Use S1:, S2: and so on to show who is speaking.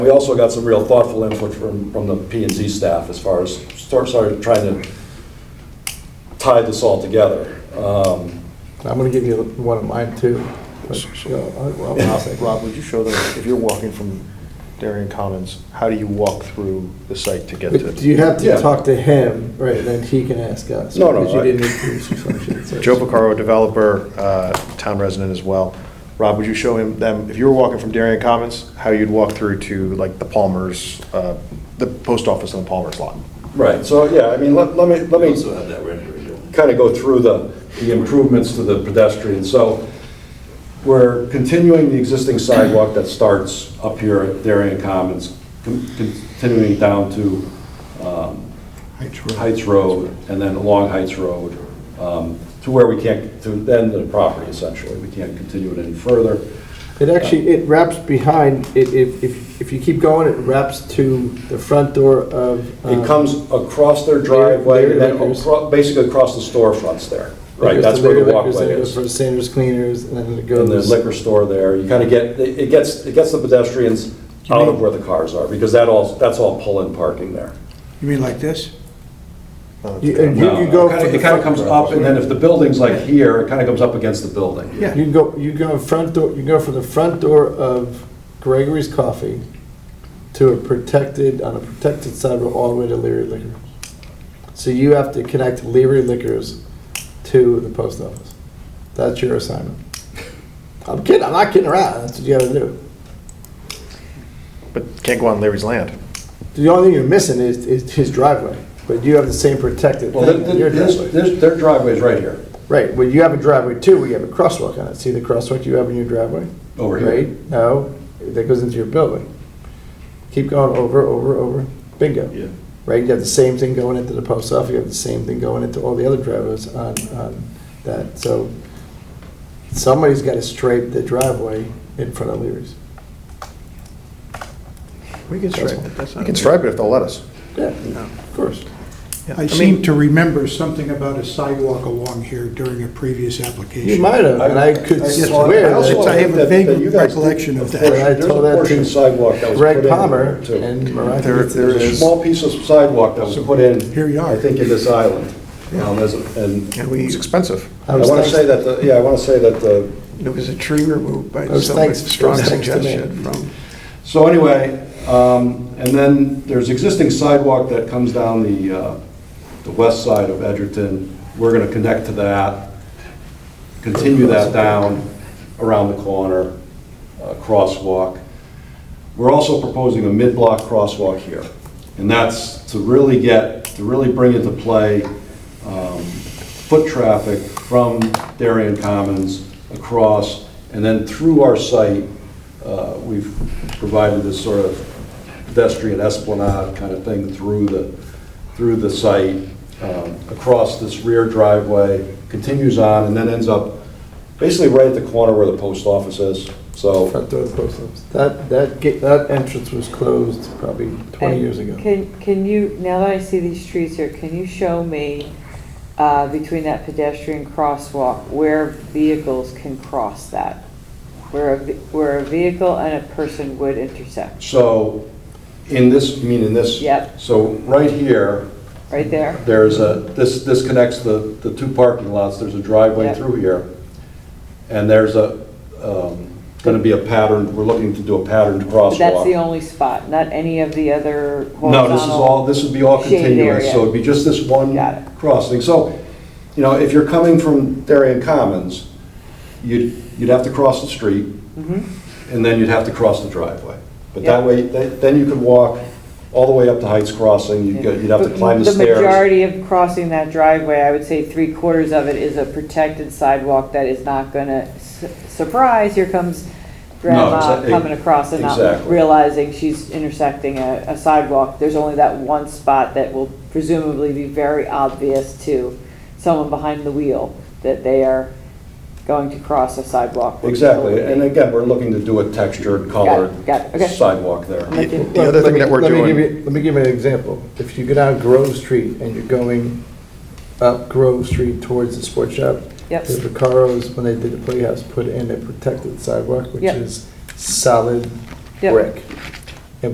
S1: We also got some real thoughtful input from, from the P and Z staff as far as, sort sort of trying to tie this all together. Um,
S2: I'm gonna give you one of mine too. but, you know, I'll- I'll
S3: Rob,
S2: take it.
S3: Rob, would you show them, if you're walking from Darien Commons, how do you walk through the site to get
S2: But
S3: to?
S2: do you have
S1: Yeah.
S2: to talk to him, right, and then he can ask us?
S1: No, no,
S2: Because you
S1: I-
S2: didn't introduce yourself, you said.
S3: Joe Picaro, developer, uh, town resident as well. Rob, would you show him, them, if you were walking from Darien Commons, how you'd walk through to like the Palmer's, uh, the post office on the Palmer's lot?
S1: Right, so, yeah, I mean, let let me, let
S4: We
S1: me.
S4: also have that rendering, don't we?
S1: kind of go through the, the improvements to the pedestrian. So we're continuing the existing sidewalk that starts up here at Darien Commons, con- continuing down to um, Heights Road, and then along Heights Road, um, to where we can't, to the end of the property essentially. We can't continue it any further.
S2: It actually, it wraps behind, it- if, if, if you keep going, it wraps to the front door of. um,
S1: It comes across their driveway, and then
S2: Larry Lickers.
S1: acro- basically across the storefronts there. Right,
S2: because
S1: that's where the
S2: liquor liquors,
S1: walkway
S2: then it
S1: is.
S2: goes For Sanders Cleaners, and then it
S1: in
S2: goes.
S1: the liquor store there, you kind of get, it it gets, it gets the pedestrians out of where the cars are, because that all, that's all pull-in parking there.
S5: You mean like this?
S3: Uh,
S2: You- and you- you go for the
S1: It kind of
S2: front-
S1: comes up, and then if the building's like here, it kind of comes up against the building.
S5: Yeah.
S2: You go, you go front door, you go from the front door of Gregory's Coffee to a protected, on a protected sidewalk all the way to Leary Liquors. So you have to connect Leary Liquors to the post office. That's your assignment. I'm kidding, I'm not kidding around, that's what you gotta do.
S3: But can't go on Larry's land.
S2: The only thing you're missing is, is his driveway, but you have the same protected
S1: Well, th-
S2: thing on your
S1: th- this-
S2: driveway.
S1: this- their driveway's right here,
S2: Right, well, you have a driveway too, we have a crosswalk on it, see the crosswalk you have in your driveway?
S1: over
S2: Right?
S1: here.
S2: No, that goes into your building. Keep going over, over, over, bingo.
S4: Yeah.
S2: Right, you have the same thing going into the post office, you have the same thing going into all the other driveways on, on that, so somebody's gotta straighten the driveway in front of Leary's.
S5: We can
S2: That's
S5: stripe
S2: all.
S5: it, that's
S3: You
S5: not.
S3: can stripe it if they'll let us.
S2: Yeah, of course.
S5: Yeah, I seem to remember something about a sidewalk along here during a previous application.
S2: You might have, and I could
S1: saw-
S2: swear
S1: I also
S5: that- I have
S1: think
S5: a
S1: that-
S5: vague
S1: that you guys did
S5: recollection of
S1: a
S5: that.
S1: portion-
S2: I
S1: There's
S2: told
S1: a
S2: that
S1: portion
S2: to
S1: of sidewalk that was put in.
S2: Greg Palmer
S1: there, too.
S2: and Mariah.
S3: There-
S2: Kinsey.
S3: there
S1: There's a
S3: is-
S1: small piece of sidewalk that was put in.
S5: Here you are.
S1: I think in this island. Um, as a- And
S6: And
S3: It's
S6: we,
S3: expensive.
S2: I
S1: I
S2: was
S1: want to
S2: thanks-
S1: say that, the- yeah, I want to say that the
S6: there was a tree removed by
S2: Those
S6: somebody,
S2: thanks-
S6: strong
S2: those thanks to me.
S6: suggestion from,
S1: So anyway, um, and then there's existing sidewalk that comes down the, uh, the west side of Edgerton. We're gonna connect to that, continue that down around the corner, uh, crosswalk. We're also proposing a mid-block crosswalk here, and that's to really get, to really bring into play um, foot traffic from Darien Commons across, and then through our site, uh, we've provided this sort of pedestrian esplanade kind of thing through the, through the site, um, across this rear driveway, continues on, and then ends up basically right at the corner where the post office is, so.
S2: Front door of the post office. That, that, gate- that entrance was closed probably twenty years ago.
S7: Can, can you, now that I see these streets here, can you show me uh, between that pedestrian crosswalk where vehicles can cross that? Where a, ve- where a vehicle and a person would intersect,
S1: So, in this, you mean in this?
S7: Yep.
S1: So, right here,
S7: right there?
S1: there's a, this, this connects the, the two parking lots, there's a driveway
S7: Yep.
S1: through here, and there's a, um, gonna be a pattern, we're looking to do a patterned crosswalk.
S7: But That's the only spot, not any of the other
S1: No, this is all, this would be all
S7: shaded
S1: continuous,
S7: area.
S1: so it'd be just this one
S7: Got it.
S1: crossing. So, you know, if you're coming from Darien Commons, you'd, you'd have to cross the street,
S7: Mhm.
S1: and then you'd have to cross the driveway. But that
S7: Yeah.
S1: way, th- then you could walk all the way up to Heights Crossing, you'd go- you'd have to
S7: But
S1: climb the stairs.
S7: The majority of crossing that driveway, I would say three quarters of it is a protected sidewalk that is not gonna, su- surprise, here comes grandma
S1: exa- e-,
S7: coming across and not
S1: exactly.
S7: realizing she's intersecting a a sidewalk. There's only that one spot that will presumably be very obvious to someone behind the wheel that they are going to cross a sidewalk. where people
S1: Exactly,
S7: would be.
S1: and again, we're looking to do a textured, colored
S7: got it, okay.
S1: sidewalk there.
S7: I'm like,
S3: The other thing that we're
S2: Let me- let me
S3: doing-
S2: give you- Let me give you an example. If you go down Grove Street and you're going up Grove Street towards the sports shop,
S7: Yep.
S2: the Vacaros, when they did the playhouse, put in a protected sidewalk, which
S7: Yep.
S2: is solid
S7: Yep.
S2: brick.